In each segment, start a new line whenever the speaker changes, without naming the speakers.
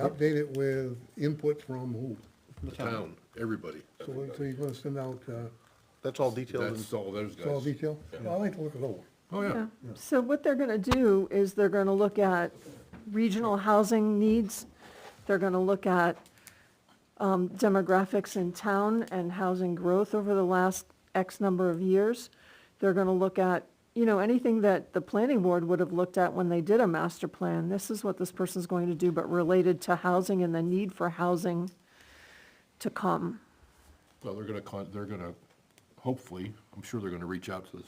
Update it with input from who?
The town, everybody.
So what- so you're gonna send out, uh,
That's all detailed. That's all those
it's all
guys.
detail? Well, I'd like to look it over.
Oh, yeah.
Yeah. So what they're gonna do is they're gonna look at regional housing needs. They're gonna look at um, demographics in town and housing growth over the last X number of years. They're gonna look at, you know, anything that the planning board would have looked at when they did a master plan. This is what this person's going to do, but related to housing and the need for housing to come.
Well, they're gonna, con- they're gonna, hopefully, I'm sure they're gonna reach out to the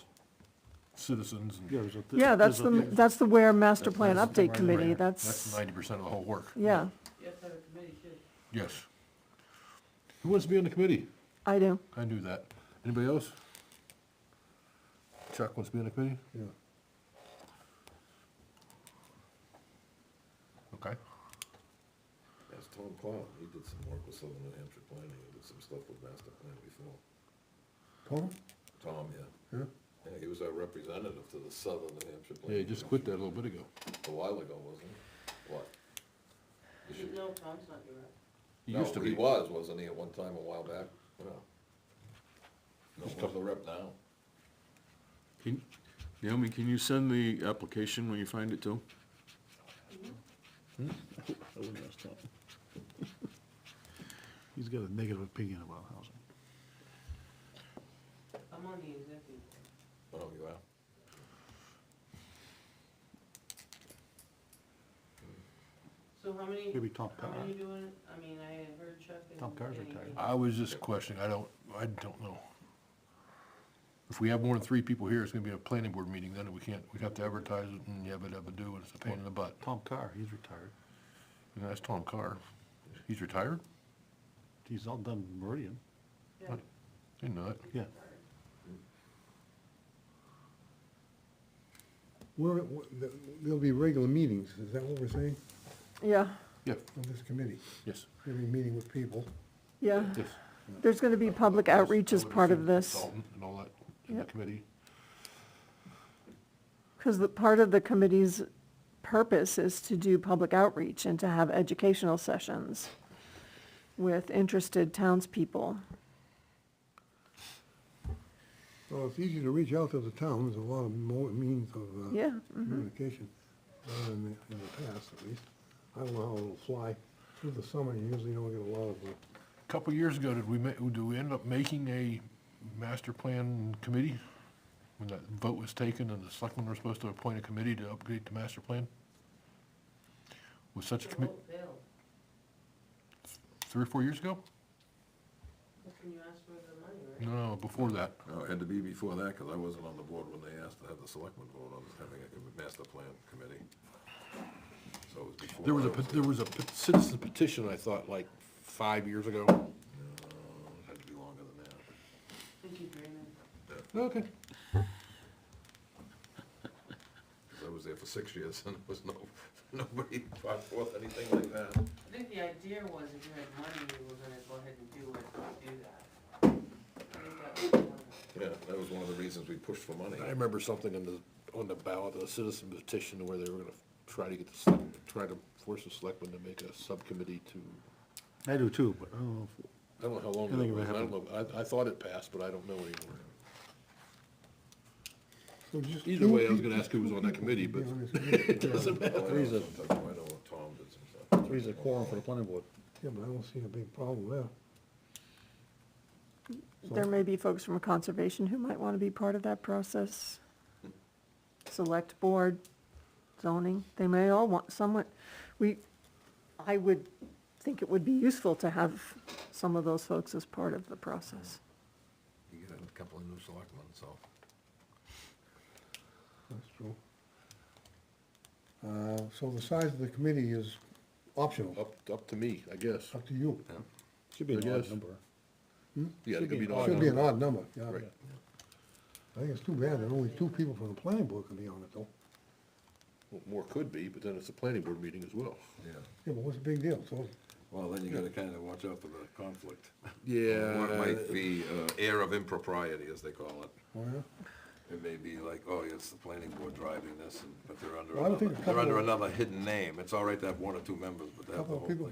citizens and
Yeah, that's the, that's the Ware Master Plan Update Committee,
that's
that's,
ninety percent of the whole work.
yeah,
Yes. Who wants to be on the committee?
I do.
I knew that. Anybody else? Chuck wants to be on the committee?
Yeah.
Okay.
That's Tom Clown, he did some work with Southern New Hampshire Planning, he did some stuff with master plan before.
Tom?
Tom, yeah,
Yeah?
yeah, he was our representative to the Southern New Hampshire
Yeah,
Planning.
you just quit that a little bit ago.
Commission A while ago, wasn't he? What? This year?
No, Tom's not your rep.
You
No,
used to
but he
be.
was, wasn't he, at one time a while back? No. No,
Just
who's the rep now?
Can- Naomi, can you send the application when you find it too?
Hmm?
He's got a negative opinion about housing.
I'm on the executive.
Oh, you are?
So how many,
Maybe Tom
how
Carr.
many doing, it? I mean, I had heard Chuck and.
Tom Carr's
and he-
retired.
I was just questioning, I don't, I don't know. If we have more than three people here, it's gonna be a planning board meeting, then we can't, we'd have to advertise it and yabba dabba do, and it's a pain in the butt.
Tom Carr, he's retired.
And that's Tom Carr. He's retired?
He's all done Meridian.
Yeah.
Didn't know that.
Yeah,
Where, wh- th- there'll be regular meetings, is that what we're saying,
Yeah,
Yeah,
of this committee?
yes,
Every meeting with people?
yeah.
yes.
There's gonna be public outreach as part of this,
Consultant And all that, in the
Yep.
committee.
because the, part of the committee's purpose is to do public outreach and to have educational sessions with interested townspeople.
Well, it's easy to reach out to the town, there's a lot of more means of, uh,
Yeah,
communication, uh, in the, in the past at least. I don't know how it'll fly through the summer, you usually don't get a lot of, uh,
Couple years ago, did we ma, do we end up making a master plan committee? When that vote was taken and the selectmen were supposed to appoint a committee to update the master plan? Was such a
The
committee,
vote failed.
three or four years ago?
That's when you asked for the money, right?
No, before that.
No, it had to be before that, because I wasn't on the board when they asked to have the selectmen vote on having a master plan committee. So it was before.
There was a,
I
pet- there was a pet- citizen petition, I thought, like, five years ago.
No, it had to be longer than that.
Thank you, Brandon.
Okay.
Because I was there for six years and there was no, nobody brought forth anything like that.
I think the idea was if you had money, you were gonna go ahead and do it, do that. I think that was one of them.
Yeah, that was one of the reasons we pushed for money.
I remember something on the, on the ballot, a citizen petition where they were gonna try to get the, select- try to force the selectmen to make a subcommittee to,
I do too, but I don't know if,
I don't know how long
I think
ago,
it
it was. I don't
happened.
know, I, I thought it passed, but I don't know anymore.
so just.
Either
two
way, I was
peop-
gonna ask who was on that committee,
be
but
on this committee.
it doesn't matter.
Three's a. I know Tom did some stuff.
he's a quorum for the planning board.
Yeah, but I don't see a big problem there.
there may be folks from conservation who might want to be part of that process. Select board, zoning, they may all want someone, we, I would think it would be useful to have some of those folks as part of the process.
You get a couple of new selectmen, so.
That's true. Uh, So the size of the committee is optional,
Up, up to me, I guess.
up to you.
Should be
I
an odd
guess.
number.
Yeah, it could Hmm? be an odd
Should be an
number.
odd number, yeah.
Right.
I think it's too bad that only two people from the planning board can be on it, though.
Well, More could be, but then it's a planning board meeting as well.
Yeah,
Yeah, but what's the big deal? So,
well, then you gotta kinda watch out for the conflict.
Yeah.
uh, What might be, uh, air of impropriety, as they call it.
oh, yeah?
It may be like, oh, yeah, it's the planning board driving this, and- but they're under
Well, I would
another,
think a
they're under
couple
another hidden name. It's all right to have one or two members, but they have the
Couple
whole
of
thing.
people